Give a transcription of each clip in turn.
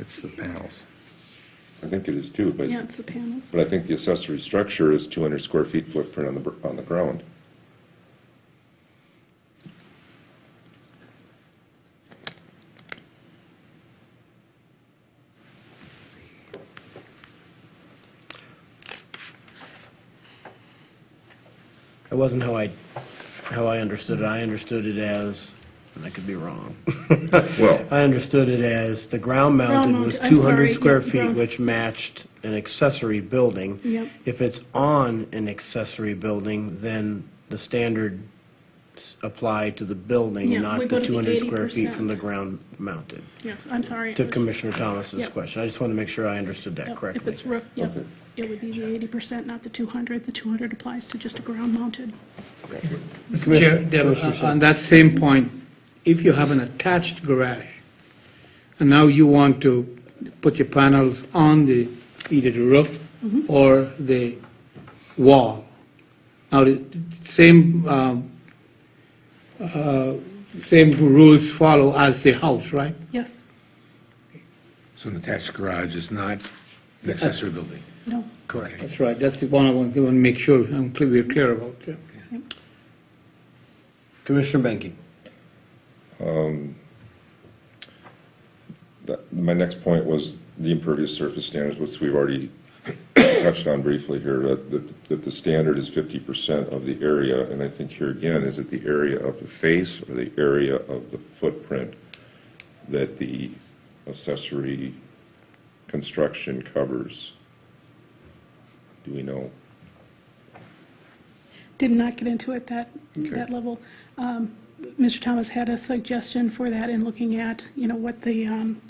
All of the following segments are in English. It's the panels. I think it is too, Yeah, but, it's the panels. but I think the accessory structure is two hundred square feet footprint on the, br- on the ground. That wasn't how I, how I understood it. I understood it as, and I could be wrong. Well, I understood it as the ground mounted Ground was mount- I'm two sorry, hundred square yeah, feet, ground- which matched an accessory building. Yep. If it's on an accessory building, then the standards apply to the Yeah, building, we not go the to the two hundred square feet from 80%. the ground mounted. Yes, I'm sorry. To Commissioner Thomas's Yep. question, I just wanted to make sure I understood that Yep, correctly. If it's roof, yep, Okay. it would be the eighty percent, not the two hundred. The two hundred applies to just a ground mounted. Mr. Chair, Commissioner- Deb, Commissioner uh, Saab. on that same point, if you have an attached garage, and now you want to put your panels on the, either the roof or the wall. Now, the same, um, uh, same rules follow as the house, right? Yes, So an attached garage is not an accessory building? no, Correct. That's right, that's the one I want, I want to make sure I'm clear, we're clear about, yeah. Commissioner Benke. that, my next point was the impervious surface standards, which we've already touched on briefly here, that, that, that the standard is fifty percent of the area, and I think here again, is it the area of the face or the area of the footprint that the accessory construction covers? Do we know? did not get into it that, Okay. that level. Um, Mr. Thomas had a suggestion for that in looking at, you know, what the, um,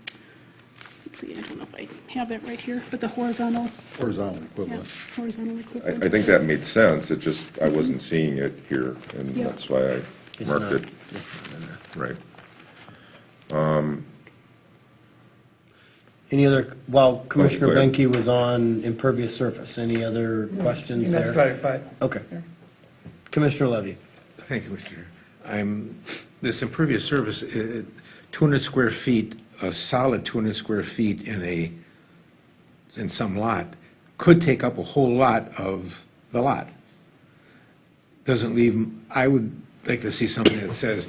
let's see, I don't know if I have that right here, but the horizontal, Horizontal yeah, equivalent. horizontal I, equivalent. I think that made sense, it just, I wasn't seeing it here, and Yeah. that's why I It's marked not- it, it's not in there. right. Any other, while Commissioner go ahead. Benke was on impervious surface, any other questions there? Okay. Commissioner Levy, Thank you, Mr. Chair. I'm, this impervious surface, uh, 200 square feet, a solid 200 square feet in a, in some lot, could take up a whole lot of the lot. Doesn't leave, I would like to see something that says,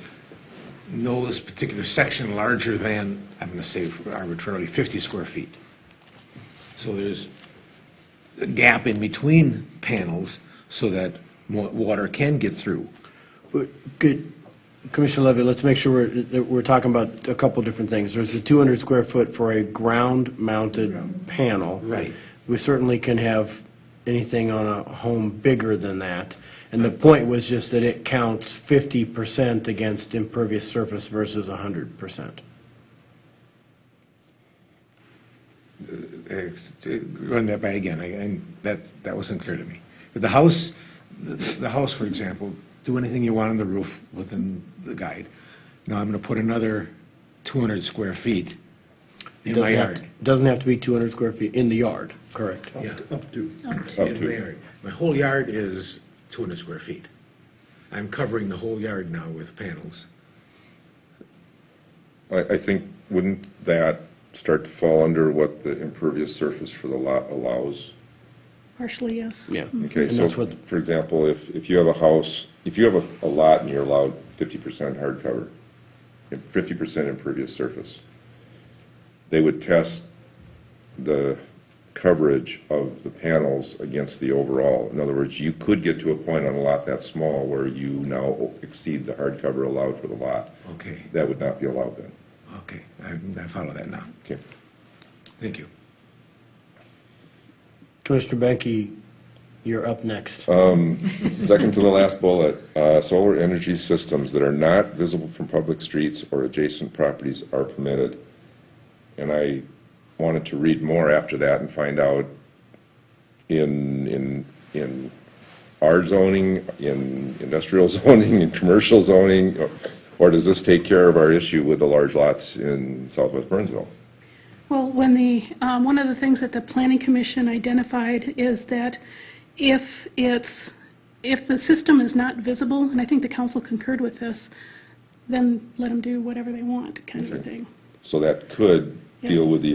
no, this particular section larger than, I'm going to say arbitrarily, 50 square feet. So there's a gap in between panels so that mo- water can get through. good, Commissioner Levy, let's make sure we're, that we're talking about a couple different things. There's the 200 square foot for a ground-mounted panel. Right. We certainly can have anything on a home bigger than that. And the point was just that it counts 50% against impervious surface versus 100%. Ex- Run that by again, I- and that, that wasn't clear to me. But the house, the- the house, for example, do anything you want on the roof within the guide. Now I'm going to put another 200 square feet in my Doesn't have to- yard. Doesn't have to be 200 square feet in the yard, correct? Yeah. Up to. Up In to. my yard. My whole yard is 200 square feet. I'm covering the whole yard now with panels. I, I think, wouldn't that start to fall under what the impervious surface for the lot allows? Partially, yes. Yeah. Okay, Mm. And so, that's what- for example, if, if you have a house, if you have a, a lot and you're allowed fifty percent hardcover, fifty percent impervious surface, they would test the coverage of the panels against the overall. In other words, you could get to a point on a lot that small where you now exceed the hardcover allowed for the lot. Okay, That would not be allowed then. okay, I I follow that now. Okay. Thank you. Commissioner Benke, you're up next. Second to the last bullet, uh, solar energy systems that are not visible from public streets or adjacent properties are permitted. And I wanted to read more after that and find out in, in, in our zoning, in industrial zoning, in commercial zoning, or- or does this take care of our issue with the large lots in southwest Burnsville? Well, when the, um, one of the things that the planning commission identified is that if it's, if the system is not visible, and I think the council concurred with this, then let them do whatever they want, kind of a thing. So that could deal with the